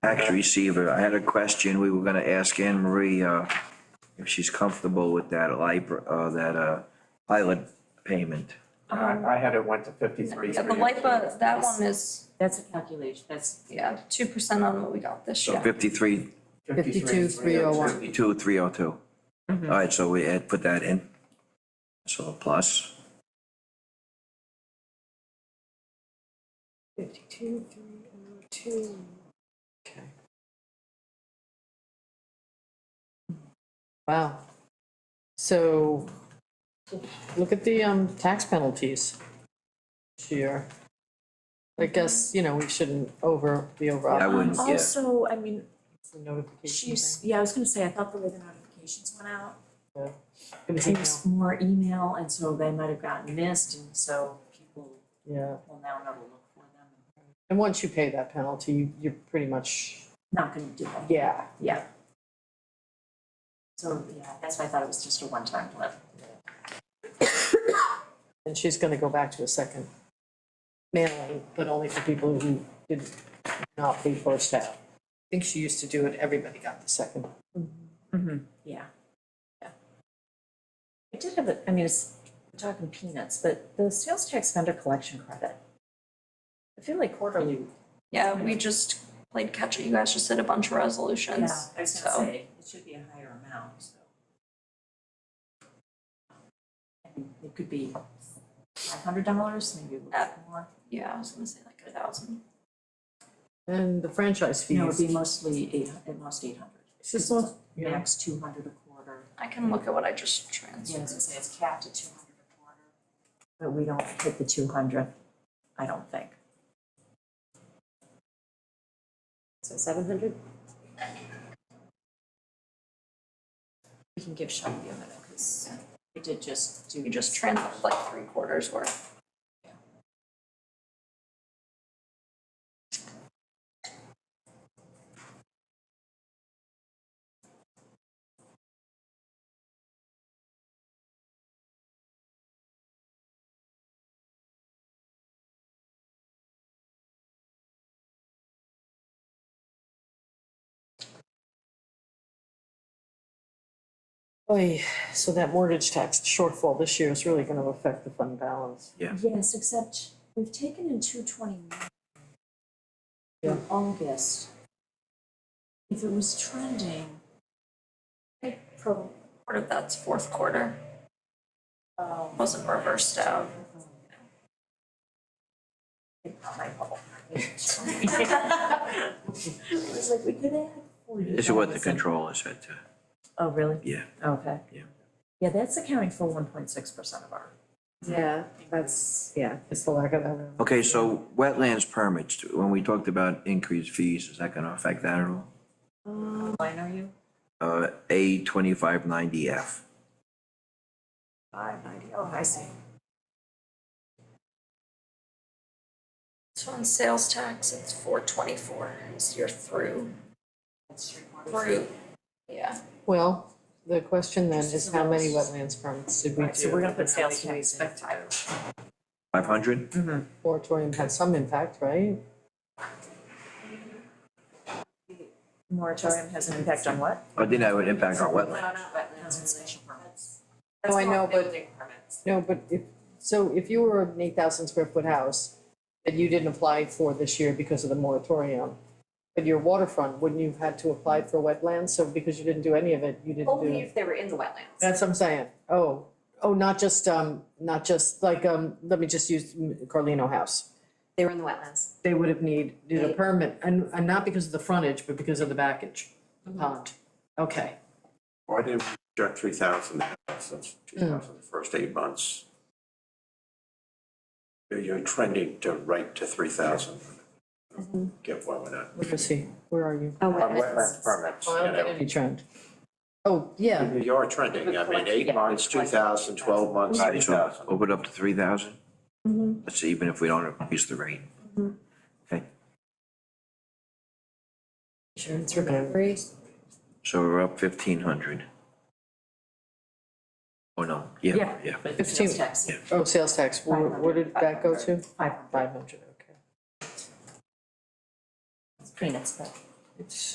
Tax receiver, I had a question, we were gonna ask Anne Marie, uh, if she's comfortable with that LIBOR, uh, that, uh, pilot payment. I, I had it went to fifty-three. Um, Yeah, the LIPA, that one is, That's a calculation, that's, yeah, two percent on what we got this So year. fifty-three, 52301. fifty-two, three oh two. All right, so we add, put that in. So a plus, Fifty-two, three oh two. Okay. Wow. So, look at the, um, tax penalties this year. I guess, you know, we shouldn't over, be over. I wouldn't, yeah. Also, I mean, It's a Notification she's, thing. yeah, I was gonna say, I thought the way the notifications went out, It was it was more email, and so they might have gotten missed, and so people email, Yeah, will now never look for them. and once you pay that penalty, you- you're pretty much, Not gonna do that, yeah, yeah. So, yeah, that's why I thought it was just a one-time blip. and she's gonna go back to a second mailing, but only for people who did not pay first out. I think she used to do it, everybody got the second. Mm-hmm. Yeah. Yeah. I did have a, I mean, it's, we're talking peanuts, but the sales tax vendor collection credit. I feel like quarterly. Yeah, we just played catch up, you guys just did a bunch of resolutions, so. say, it should be a higher amount, so. I mean, It could be five hundred dollars, maybe a little bit more. Yeah, I was gonna say like a thousand. And the franchise No, it'd fees. be mostly eight, at most eight hundred. It's just not- yeah. Max two hundred a quarter. I can look at what I just Yeah, transferred. as I say, it's capped at two hundred a quarter. But we don't hit the two hundred, I don't think. So seven hundred? We can give Shelby a minute, because we did just do. We just transferred like three quarters worth. Oy, so that mortgage tax shortfall this year is really gonna affect the fund balance. Yes, except we've taken in two twenty-nine Yeah. from August. If it was trending, Pro. Part of that's fourth quarter, um, wasn't reversed out. it's not my fault. It was like, we could add forty. this is what the controller said to, Oh, really? yeah. Okay. Yeah. Yeah, that's accounting for one point six percent of our. Yeah, that's, yeah. It's the lack of that. Okay, so wetlands permits, when we talked about increased fees, is that gonna affect that at all? Line are you? Uh, A twenty-five ninety F. Five ninety, oh, I see. So on sales tax, it's four twenty-four, is your through, That's three quarters. through, yeah. Well, the question then is how many wetlands permits did we do? Right, so we're gonna put sales How many tax in. do we expect? Five hundred? Moratorium had some impact, right? Moratorium has an impact on what? I didn't have an impact on wetlands. Wetlands and special permits. Oh, No, I know, but. No, but if, so if you were an eight thousand square foot house that you didn't apply for this year because of the moratorium, but your waterfront, wouldn't you have had to apply for wetlands? So because you didn't do any of it, you didn't do. Only if they were in the wetlands. That's what I'm saying. Oh, oh, not just, um, not just like, um, let me just use Carlino House. They were in the wetlands. They would have needed a permit and, and not because of the frontage, but because of the backage, the pond. Okay, Why did we reject three thousand since two Mm. thousand, the first eight months? You're- You're trending to right to three thousand. Mm-hmm. Get one with that. where is he? Where are you? Oh, On wetland permits, you Oh, I don't get know, any trend. Oh, yeah, you are trending, I mean, eight Yeah. months, two thousand, twelve months, All three right, so thousand. open up to three thousand? That's even if we don't increase the rate. Okay, Insurance recovery. so we're up fifteen hundred. Oh, no, yeah, yeah. But the sales tax, oh, sales tax, where, where did that go to? five hundred, Five hundred, okay. it's peanuts, but It's